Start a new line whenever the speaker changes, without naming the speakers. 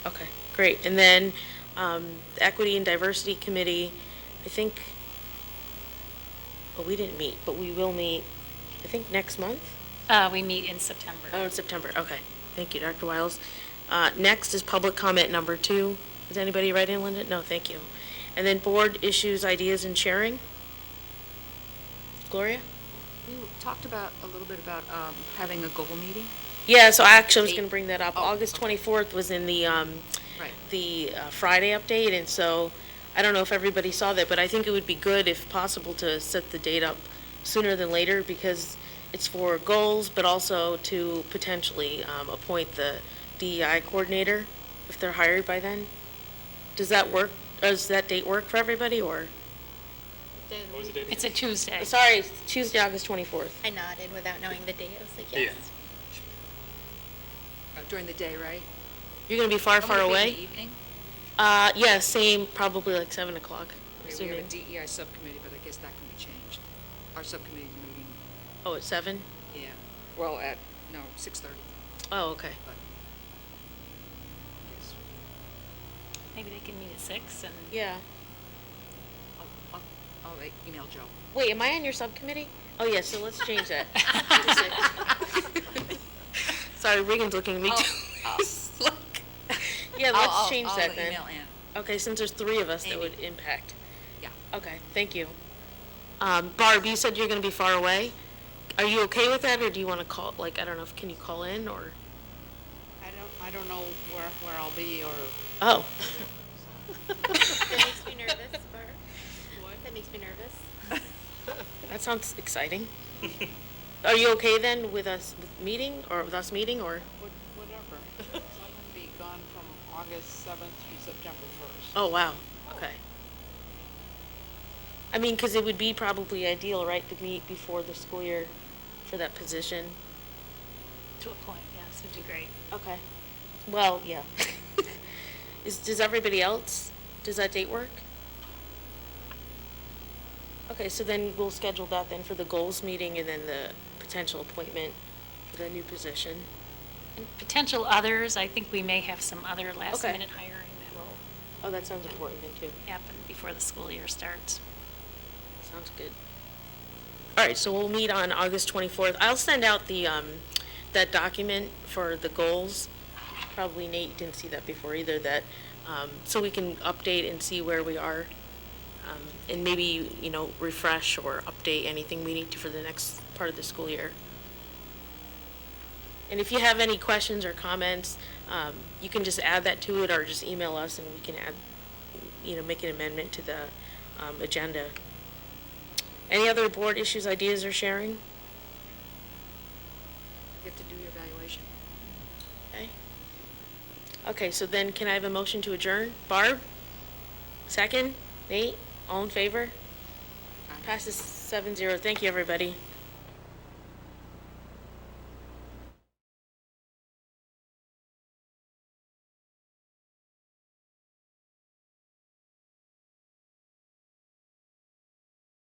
Okay, great. And then um, the Equity and Diversity Committee, I think, well, we didn't meet, but we will meet, I think, next month?
Uh, we meet in September.
Oh, in September, okay. Thank you, Dr. Wiles. Uh, Next is public comment number two. Is anybody writing, Linda? No, thank you. And then board issues, ideas, and sharing? Gloria?
We talked about, a little bit about um, having a goal meeting.
Yeah, so I actually was
Eight.
going to bring that up.
Oh,
August
okay.
24th was in the, um,
Right.
the uh, Friday update, and so, I don't know if everybody saw that, but I think it would be good, if possible, to set the date up sooner than later, because it's for goals, but also to potentially um, appoint the DEI coordinator, if they're hired by then. Does that work, does that date work for everybody, or?
What was the date?
It's a Tuesday.
Sorry, it's Tuesday, August 24th.
I nodded without knowing the date. I was like, yes.
Uh, During the day, right?
You're going to be far,
I'm
far
gonna be in
away?
the evening.
Uh, yeah, same, probably like 7 o'clock,
Okay, We have
assuming.
a DEI subcommittee, but I guess that can be changed. Our subcommittee meeting,
Oh, at 7?
yeah, well, at, no, 6:30,
Oh, okay.
but. I guess
Maybe they can meet at six and.
Yeah.
I'll- I'll- I'll like, email Joe.
Wait, am I on your subcommittee? Oh, yeah, so let's change that. Sorry, Regan's looking at me too. Oh. Yeah,
I'll-
let's
I'll-
change that then.
I'll email Ann,
Okay, since there's three of us, that
Amy.
would impact.
yeah.
Okay, thank you. Um, Barb, you said you're gonna be far away. Are you okay with that, or do you wanna call, like, I don't know, if can you call in, or?
I don't, I don't know where, where I'll be or.
Oh,
That makes me nervous, Barb. What? That makes me nervous.
that sounds exciting. Are you okay then with us with meeting, or with us meeting, or?
What- Whatever. So I'm gonna be gone from August seventh through September first.
Oh, wow, okay. I mean, because it would be probably ideal, right, to meet before the school year for that position.
To a point, yes, would be great.
Okay. Well, yeah. Is, does everybody else, does that date work? Okay, so then we'll schedule that then for the goals meeting and then the potential appointment for the new position.
And potential others, I think we may have some other last
Okay.
minute hiring that will
Oh, that sounds important then too.
happen before the school year starts.
Sounds good. All right, so we'll meet on August 24th. I'll send out the, um, that document for the goals. Probably Nate, you didn't see that before either, that, um, so we can update and see where we are. Um, and maybe, you know, refresh or update anything we need to for the next part of the school year. And if you have any questions or comments, um, you can just add that to it or just email us and we can add, you know, make an amendment to the, um, agenda. Any other board issues, ideas, or sharing?
You have to do your evaluation.
Okay. Okay, so then can I have a motion to adjourn? Barb? Second? Nate? All in favor?
Aye.
Passes seven zero. Thank you, everybody.